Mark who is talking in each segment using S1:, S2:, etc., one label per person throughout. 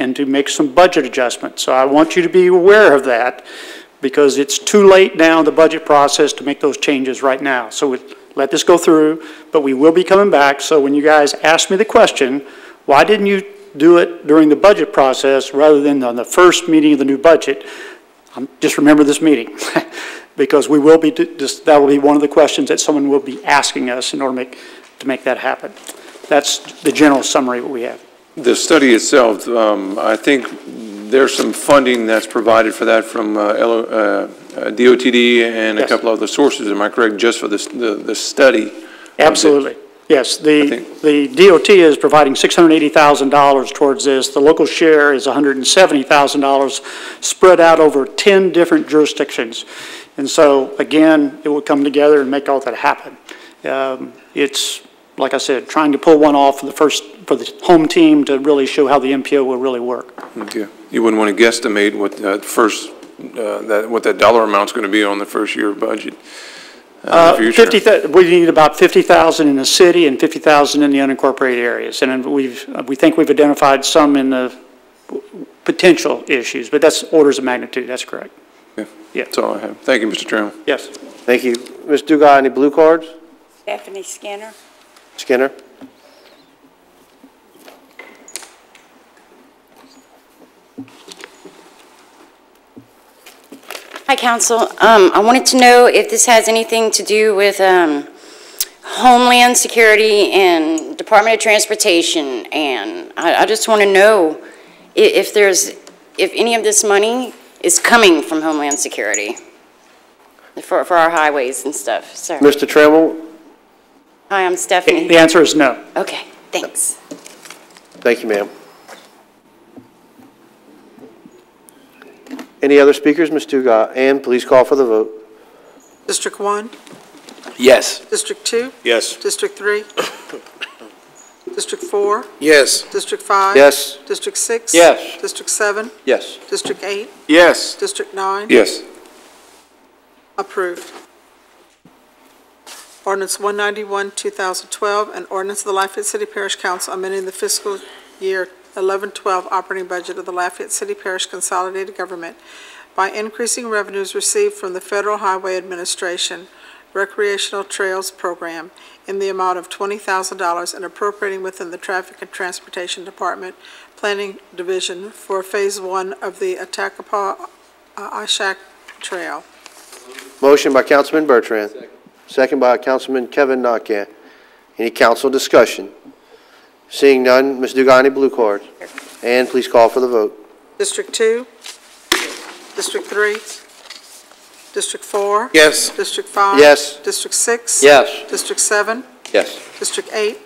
S1: to make some budget adjustments. So I want you to be aware of that, because it's too late now in the budget process to make those changes right now. So we- let this go through, but we will be coming back. So when you guys ask me the question, why didn't you do it during the budget process rather than on the first meeting of the new budget? Um, Just remember this meeting, because we will be, just- that will be one of the questions that someone will be asking us in order to make, to make that happen. That's the general summary we have.
S2: The study itself, um, I think there's some funding that's provided for that from uh, L- uh, DOTD and a
S1: Yes.
S2: couple other sources, am I correct, just for this, the, the study?
S1: Absolutely. Yes,
S2: I
S1: the,
S2: think-
S1: the DOT is providing $680,000 towards this. The local share is $170,000, spread out over 10 different jurisdictions. And so, again, it will come together and make all that happen. Um, It's, like I said, trying to pull one off for the first, for the home team to really show how the MPO will really work.
S2: Okay. You wouldn't want to guesstimate what that first, uh, that, what that dollar amount's going to be on the first year budget uh, in the future.
S1: 50, thou- we need about 50,000 in the city and 50,000 in the unincorporated areas. And we've, we think we've identified some in the potential issues, but that's orders of magnitude, that's correct.
S2: That's all I have. Thank you, Mr. Chairman.
S1: Yes.
S3: Thank you. Ms. Dugai, any blue cards?
S4: Stephanie Skinner.
S3: Skinner?
S4: Hi, council. Um, I wanted to know if this has anything to do with um, Homeland Security and Department of Transportation, and I I just want to know i- if there's, if any of this money is coming from Homeland Security for for our highways and stuff, so.
S3: Mr. Trammell?
S4: Hi, I'm
S1: The
S4: Stephanie.
S1: answer is no.
S4: Okay, thanks.
S3: Thank you, ma'am. Any other speakers? Ms. Dugai, and please call for the vote.
S5: District one,
S6: Yes.
S5: District two,
S6: Yes.
S5: District three, District four,
S6: Yes.
S5: District five.
S3: Yes.
S5: District six.
S6: Yes.
S5: District seven,
S3: Yes.
S5: District eight,
S6: Yes.
S5: District nine.
S2: Yes.
S5: Approved. Ordinance one ninety-one, two thousand twelve, an ordinance of the Lafayette City Parish Council amending the fiscal year eleven twelve operating budget of the Lafayette City Parish Consolidated Government by increasing revenues received from the Federal Highway Administration Recreational Trails Program in the amount of twenty thousand dollars and appropriating within the Traffic and Transportation Department Planning Division for Phase One of the Attakapaw uh, Ashak Trail.
S3: Motion by Councilman Bertrand. Second by Councilman Kevin Nakka. Any council discussion? Seeing none, Ms. Dugai, any blue cards? And please call for the vote.
S5: District two? District three? District four?
S6: Yes.
S5: District five?
S3: Yes.
S5: District six?
S3: Yes.
S5: District seven?
S3: Yes.
S5: District eight?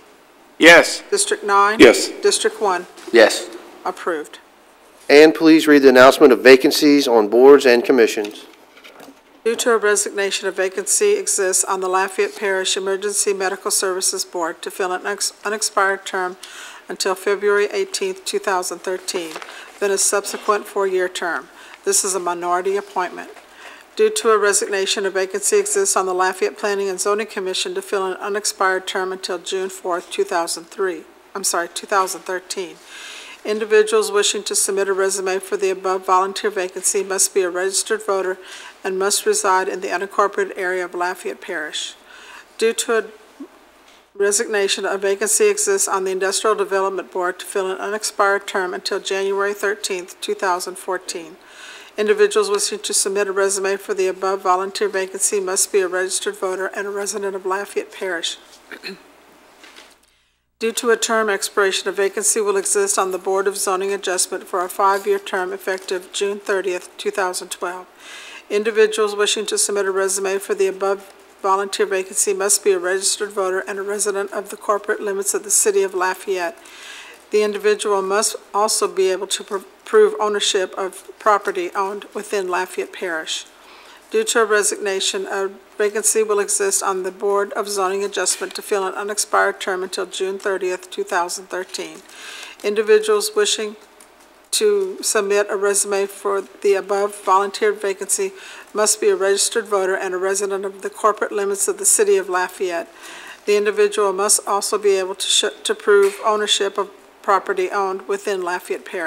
S6: Yes.
S5: District nine?
S2: Yes.
S5: District one?
S6: Yes.
S5: Approved.
S3: And please read the announcement of vacancies on boards and commissions.
S5: Due to a resignation, a vacancy exists on the Lafayette Parish Emergency Medical Services Board to fill an ex- unexpired term until February 18, 2013, then a subsequent four-year term. This is a minority appointment. Due to a resignation, a vacancy exists on the Lafayette Planning and Zoning Commission to fill an unexpired term until June 4, 2003, I'm sorry, 2013. Individuals wishing to submit a resume for the above volunteer vacancy must be a registered voter and must reside in the unincorporated area of Lafayette Parish. Due to a resignation, a vacancy exists on the Industrial Development Board to fill an unexpired term until January 13th, 2014. Individuals wishing to submit a resume for the above volunteer vacancy must be a registered voter and a resident of Lafayette Parish. Due to a term expiration, a vacancy will exist on the Board of Zoning Adjustment for a five-year term effective June 30th, 2012. Individuals wishing to submit a resume for the above volunteer vacancy must be a registered voter and a resident of the corporate limits of the city of Lafayette. The individual must also be able to pr- prove ownership of property owned within Lafayette Parish. Due to a resignation, a vacancy will exist on the Board of Zoning Adjustment to fill an unexpired term until June 30th, 2013. Individuals wishing to submit a resume for the above volunteered vacancy must be a registered voter and a resident of the corporate limits of the city of Lafayette. The individual must also be able to sh- to prove ownership of property owned within Lafayette Parish.